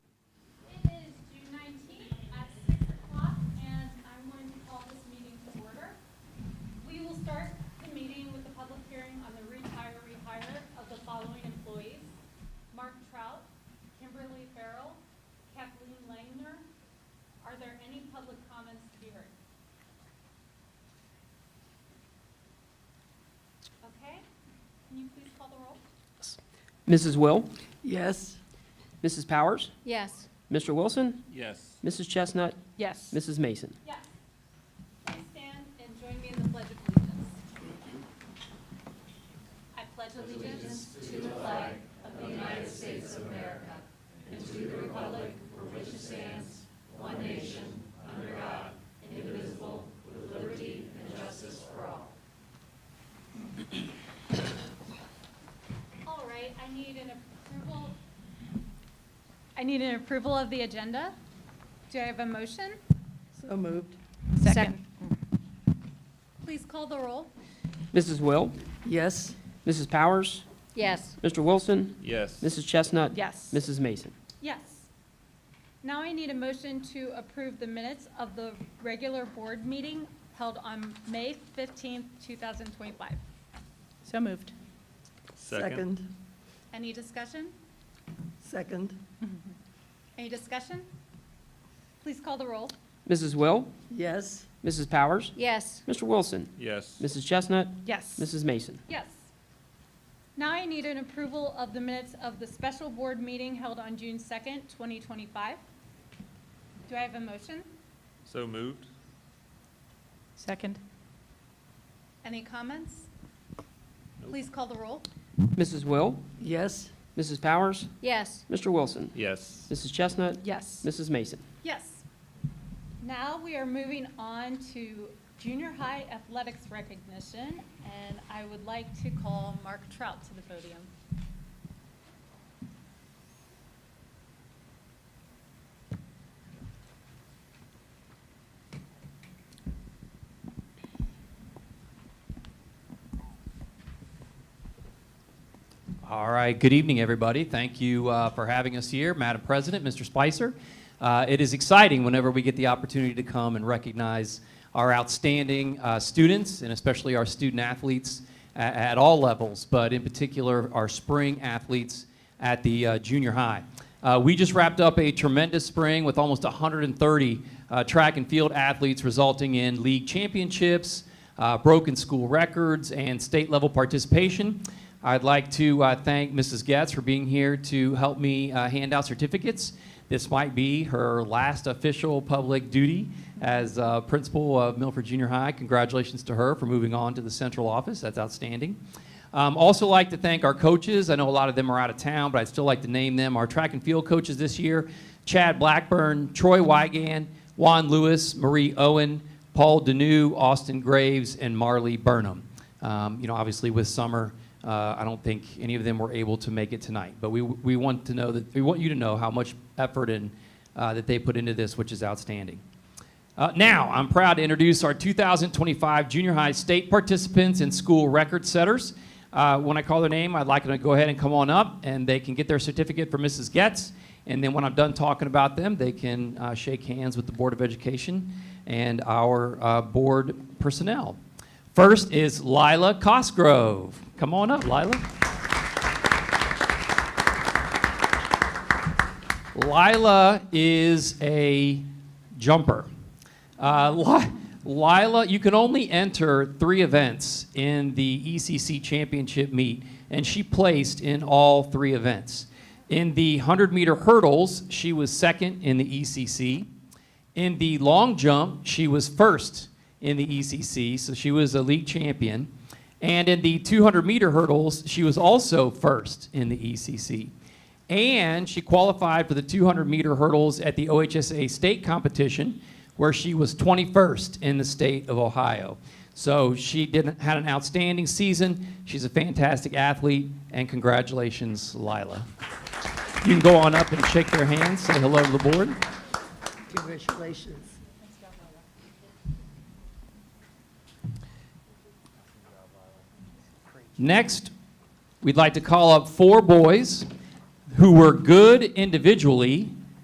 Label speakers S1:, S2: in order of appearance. S1: you please call the roll?
S2: Mrs. Will,
S3: Yes.
S2: Mrs. Powers,
S4: Yes.
S2: Mr. Wilson,
S5: Yes.
S2: Mrs. Chestnut,
S3: Yes.
S2: Mrs. Mason.
S1: Yes. Please stand and join me in the Pledge of Allegiance. I pledge allegiance All right, I need an approval. I need an approval of the agenda. Do I have a motion?
S3: So moved.
S4: Second.
S1: Please call the roll.
S2: Mrs. Will,
S3: Yes.
S2: Mrs. Powers,
S4: Yes.
S2: Mr. Wilson,
S5: Yes.
S2: Mrs. Chestnut.
S3: Yes.
S2: Mrs. Mason.
S1: Yes. Now I need a motion to approve the minutes of the regular board meeting held on May 15th, 2025.
S4: So moved.
S3: Second.
S1: Any discussion?
S3: Second.
S1: Any discussion? Please call the roll.
S2: Mrs. Will,
S3: Yes.
S2: Mrs. Powers,
S4: Yes.
S2: Mr. Wilson,
S5: Yes.
S2: Mrs. Chestnut,
S3: Yes.
S2: Mrs. Mason.
S1: Yes. Now I need an approval of the minutes of the special board meeting held on June 2nd, 2025. Do I have a motion?
S5: So moved?
S4: Second.
S1: Any comments?
S5: Nope.
S1: Please call the roll.
S2: Mrs. Will,
S3: Yes.
S2: Mrs. Powers,
S4: Yes.
S2: Mr. Wilson,
S5: Yes.
S2: Mrs. Chestnut,
S4: Yes.
S2: Mrs. Mason.
S1: Yes. Now we are moving on to junior high athletics recognition, and I would like to call Mark Trout to the podium.
S6: All right, good evening, everybody. Thank you uh, for having us here, Madam President, Mr. Spicer. Uh, It is exciting whenever we get the opportunity to come and recognize our outstanding uh, students, and especially our student athletes a- at all levels, but in particular, our spring athletes at the uh, junior high. Uh, we just wrapped up a tremendous spring with almost 130 uh, track and field athletes, resulting in league championships, uh, broken school records, and state level participation. I'd like to uh, thank Mrs. Getz for being here to help me uh, hand out certificates. This might be her last official public duty as uh, principal of Milford Junior High. Congratulations to her for moving on to the central office. That's outstanding. Um, also, like to thank our coaches. I know a lot of them are out of town, but I'd still like to name them. Our track and field coaches this year Chad Blackburn, Troy Wygan, Juan Lewis, Marie Owen, Paul Deneau, Austin Graves, and Marley Burnham. Um, you know, obviously with summer, uh, I don't think any of them were able to make it tonight. But we, we want to know that we want you to know how much effort and uh, that they put into this, which is outstanding. Uh, now, I'm proud to introduce our 2025 junior high state participants and school record setters. Uh, when I call their name, I'd like them to go ahead and come on up, and they can get their certificate from Mrs. Getz. And then when I'm done talking about them, they can uh, shake hands with the Board of Education and our uh, board personnel. First is Lila Cosgrove. Come on up, Lila. Lila is a jumper. Uh, Li- Lila, you can only enter three events in the ECC championship meet, and she placed in all three events. In the 100 meter hurdles, she was second in the ECC. In the long jump, she was first in the ECC, so she was a league champion. And in the 200 meter hurdles, she was also first in the E ECC. And she qualified for the 200 meter hurdles at the OHSA state competition, where she was 21st in the state of Ohio. So she did, had an outstanding season. She's a fantastic athlete, and congratulations, Lila. You can go on up and shake their hands, say hello to the board.
S3: Congratulations.
S6: Next, we'd like to call up four boys who were good individually